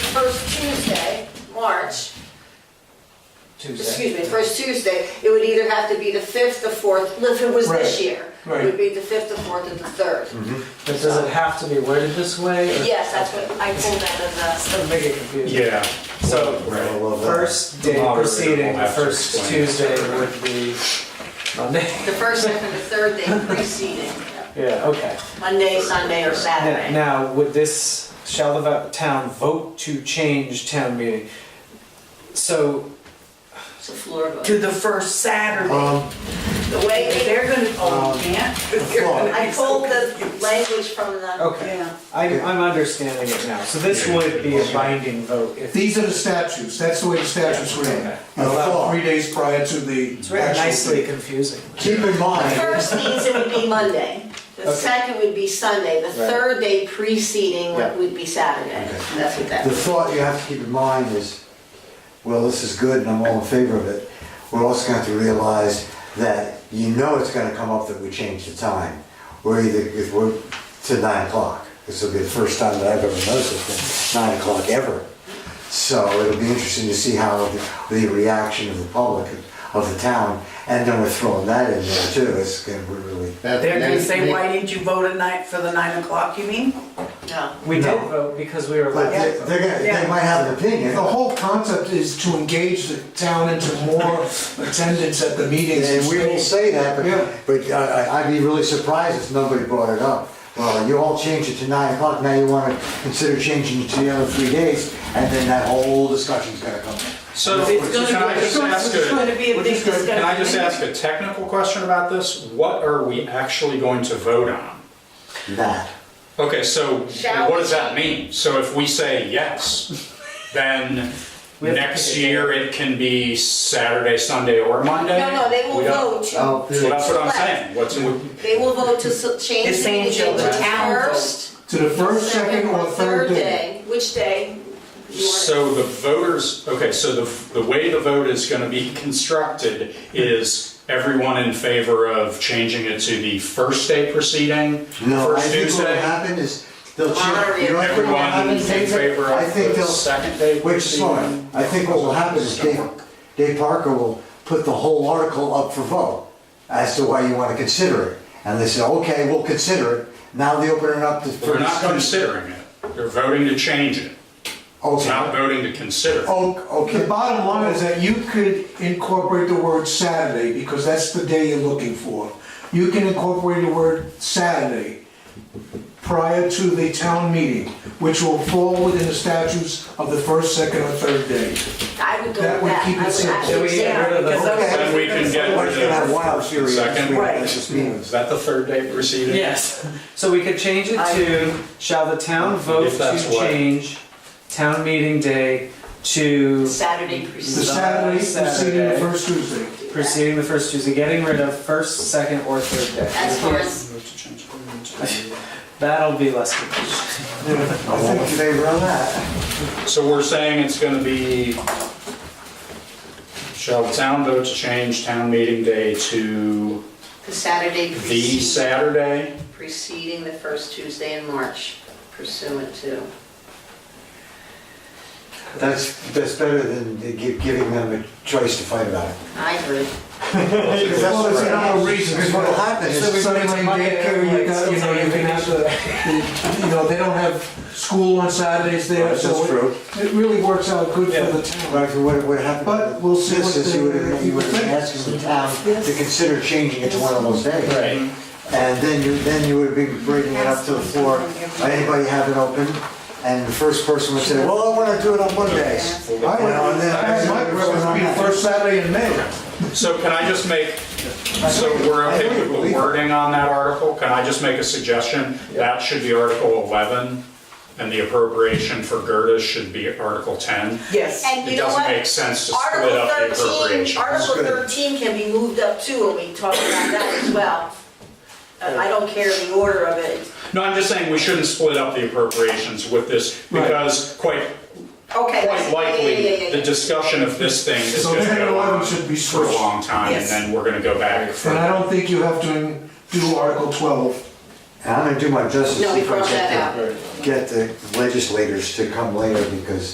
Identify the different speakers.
Speaker 1: Tuesday, March,
Speaker 2: Tuesday.
Speaker 1: excuse me, first Tuesday, it would either have to be the 5th, the 4th, if it was this
Speaker 2: Right,
Speaker 1: year. It
Speaker 2: right. Mm-hmm.
Speaker 1: would be the 5th, the 4th, and the 3rd.
Speaker 2: But does it have to be worded this way? or-
Speaker 1: Yes, that's what I pulled out of the,
Speaker 2: Doesn't make it confusing.
Speaker 3: Yeah,
Speaker 2: So, first day
Speaker 3: Moderator will
Speaker 2: proceeding, the
Speaker 3: have to
Speaker 2: first
Speaker 3: explain.
Speaker 2: Tuesday would be Monday.
Speaker 1: the first and the third day preceding,
Speaker 2: Yeah, okay.
Speaker 1: Monday, Sunday, or
Speaker 2: Now,
Speaker 1: Saturday.
Speaker 2: now, would this, shall the vo- town vote to change town meeting? So,
Speaker 1: It's a floor vote.
Speaker 4: to the first Saturday.
Speaker 5: Um,
Speaker 1: The way
Speaker 4: If
Speaker 1: they-
Speaker 4: They're gonna, oh,
Speaker 2: Um,
Speaker 4: yeah.
Speaker 1: I pulled the language from the.
Speaker 2: okay,
Speaker 4: Yeah.
Speaker 2: I'm, I'm understanding it now. So this
Speaker 3: Yeah.
Speaker 2: would be a binding vote if.
Speaker 5: these are the statutes, that's the way the statutes were in.
Speaker 2: Okay.
Speaker 5: You know, three days prior to the
Speaker 2: It's very
Speaker 5: actual.
Speaker 2: nicely confusing.
Speaker 5: Keep in
Speaker 1: The
Speaker 5: mind,
Speaker 1: first means it would be Monday, the
Speaker 2: Okay.
Speaker 1: second would be Sunday, the
Speaker 2: Right.
Speaker 1: third day preceding
Speaker 5: Yeah.
Speaker 1: would would be Saturday. That's what that
Speaker 6: The thought you have to keep in mind is, well, this is good and I'm all in favor of it. We're also going to have to realize that you know it's going to come up that we change the time. We're either, if we're to nine o'clock. This will be the first time that I've ever noticed it, nine o'clock ever. So it'll be interesting to see how the- the reaction of the public, of the town, and then we're throwing that in there too. It's going to really,
Speaker 4: They're gonna say, why didn't you vote at night for the nine o'clock, you mean?
Speaker 1: No.
Speaker 2: We did
Speaker 5: No.
Speaker 2: vote because we were
Speaker 5: but
Speaker 2: allowed
Speaker 5: they-
Speaker 2: to vote.
Speaker 5: they're gonna, they might have an opinion.
Speaker 6: The
Speaker 5: The
Speaker 6: whole
Speaker 5: whole concept is to engage the town into more attendance at the meetings.
Speaker 6: And we will say that,
Speaker 5: Yeah.
Speaker 6: but, but I- I- I'd be really surprised if nobody brought it up. Well, you all changed it to nine o'clock, now you wanna consider changing it to the other three days, and then that whole discussion's gonna come.
Speaker 3: so
Speaker 4: It's gonna
Speaker 3: can I
Speaker 4: be-
Speaker 3: just ask
Speaker 4: It's gonna
Speaker 3: a,
Speaker 4: be a
Speaker 5: Which
Speaker 4: big
Speaker 5: is good.
Speaker 4: discussion.
Speaker 3: can I just ask a technical question about this? What are we actually going to vote on?
Speaker 6: That.
Speaker 3: Okay, so
Speaker 1: Shall
Speaker 3: what does that mean? So if we say yes, then
Speaker 2: We have to
Speaker 3: next
Speaker 2: pick a day.
Speaker 3: year it can be Saturday, Sunday, or Monday?
Speaker 1: No, no, they will
Speaker 3: We don't-
Speaker 1: vote to,
Speaker 6: Oh,
Speaker 3: Well, that's what I'm
Speaker 1: Right.
Speaker 3: saying, what's, we-
Speaker 1: they will vote to s- change
Speaker 4: It's
Speaker 1: the
Speaker 4: saying
Speaker 1: meeting to
Speaker 4: the town vote.
Speaker 1: first,
Speaker 5: To the first,
Speaker 1: second, or third
Speaker 5: day.
Speaker 1: day. Which day? you want it?
Speaker 3: So the voters, okay, so the, the way the vote is going to be constructed is everyone in favor of changing it to the first day proceeding?
Speaker 6: No, I
Speaker 3: First
Speaker 6: think what'll
Speaker 3: Tuesday?
Speaker 6: happen is, they'll
Speaker 1: Honor
Speaker 6: change. you know what will
Speaker 3: Everyone
Speaker 6: happen,
Speaker 3: in
Speaker 6: David?
Speaker 3: favor
Speaker 6: I
Speaker 3: of
Speaker 6: think
Speaker 3: the
Speaker 6: they'll,
Speaker 3: second day
Speaker 6: wait just a
Speaker 3: proceeding?
Speaker 6: moment, I think what will happen is Dave, Dave Parker will put the whole article up for vote as to why you wanna consider it. And they say, okay, we'll consider it, now they open it up to.
Speaker 3: They're not considering it, they're voting to change it,
Speaker 6: Okay.
Speaker 3: It's not voting to consider. it.
Speaker 6: Oh,
Speaker 5: The
Speaker 6: okay.
Speaker 5: bottom line is that you could incorporate the word Saturday, because that's the day you're looking for. You can incorporate the word Saturday prior to the town meeting, which will fall within the statutes of the first, second, or third day.
Speaker 1: I would go
Speaker 5: That
Speaker 1: with
Speaker 5: would
Speaker 1: that.
Speaker 5: keep it
Speaker 1: I would
Speaker 5: simple.
Speaker 1: actually
Speaker 2: Then we
Speaker 1: say
Speaker 2: get rid of the-
Speaker 4: because
Speaker 6: Okay.
Speaker 4: otherwise
Speaker 3: Then we can
Speaker 4: they're gonna-
Speaker 3: get-
Speaker 6: Everybody's gonna have wild theory.
Speaker 3: Second.
Speaker 4: Right.
Speaker 6: That's just meaningless.
Speaker 3: Is that the third day proceeding?
Speaker 2: Yes, so we could change it to, shall the town vote
Speaker 3: If that's
Speaker 2: to
Speaker 3: what-
Speaker 2: change town meeting day to
Speaker 1: Saturday
Speaker 5: The
Speaker 1: preceding.
Speaker 5: Saturday preceding the
Speaker 2: Saturday.
Speaker 5: first Tuesday.
Speaker 2: preceding the first Tuesday, getting rid of first, second, or third
Speaker 1: As
Speaker 2: day?
Speaker 1: far as,
Speaker 3: Vote to change it.
Speaker 2: That'll be less confusing.
Speaker 6: I think they run that.
Speaker 3: So we're saying it's gonna be, shall the town vote to change town meeting day to
Speaker 1: the Saturday
Speaker 3: the
Speaker 1: preceding.
Speaker 3: Saturday?
Speaker 1: preceding the first Tuesday in March pursuant to.
Speaker 6: That's, that's better than gi- giving them a choice to fight about it.
Speaker 1: I agree.
Speaker 5: Well, it's
Speaker 6: right.
Speaker 5: another reason.
Speaker 6: Because what'll happen
Speaker 2: So we-
Speaker 6: is,
Speaker 5: Sunday
Speaker 2: It's Monday,
Speaker 5: daycare, you got, you know, you can have the, you know, they don't have school on Saturdays there,
Speaker 6: that's
Speaker 5: so it-
Speaker 6: true.
Speaker 5: it really works out good for the town.
Speaker 6: But if what, what happened?
Speaker 5: But we'll see
Speaker 6: This
Speaker 5: what
Speaker 6: is, you would
Speaker 5: they-
Speaker 6: have, you would have been asking the town to consider changing it to one of those days.
Speaker 3: Right.
Speaker 6: And then you, then you would have been bringing it up to the floor, anybody have it open? And the first person would say, well, I wanna do it on Mondays.
Speaker 5: I would,
Speaker 6: Well, then-
Speaker 5: I had my preference would be the first Saturday in May.
Speaker 3: So can I just make, so we're okay with the wording on that article? Can I just make a suggestion? That should be Article 11, and the appropriation for Gerda should be Article 10.
Speaker 4: Yes,
Speaker 1: And
Speaker 3: It
Speaker 1: you know
Speaker 3: doesn't
Speaker 1: what?
Speaker 3: make sense to split
Speaker 1: Article
Speaker 3: up
Speaker 1: 13,
Speaker 3: the appropriation.
Speaker 1: Article
Speaker 6: Good.
Speaker 1: 13 can be moved up too, and we talked about that as well. Uh, I don't care the order of it.
Speaker 3: No, I'm just saying we shouldn't split up the appropriations with this because quite,
Speaker 1: Okay. I see.
Speaker 3: quite
Speaker 1: Yeah, yeah, yeah,
Speaker 3: likely,
Speaker 1: yeah,
Speaker 3: the
Speaker 1: yeah.
Speaker 3: discussion of this thing is
Speaker 5: So
Speaker 3: going to
Speaker 5: 10 and
Speaker 3: go
Speaker 5: 11
Speaker 3: on
Speaker 5: should be
Speaker 3: for a
Speaker 5: switched.
Speaker 3: long time and
Speaker 4: Yes.
Speaker 3: then we're going to go back. for-
Speaker 5: And I don't think you have to do Article 12.
Speaker 6: And I'm gonna do my justice.
Speaker 1: No, we
Speaker 6: if I
Speaker 1: brought
Speaker 6: get
Speaker 1: that
Speaker 6: the- Get the legislators to come later because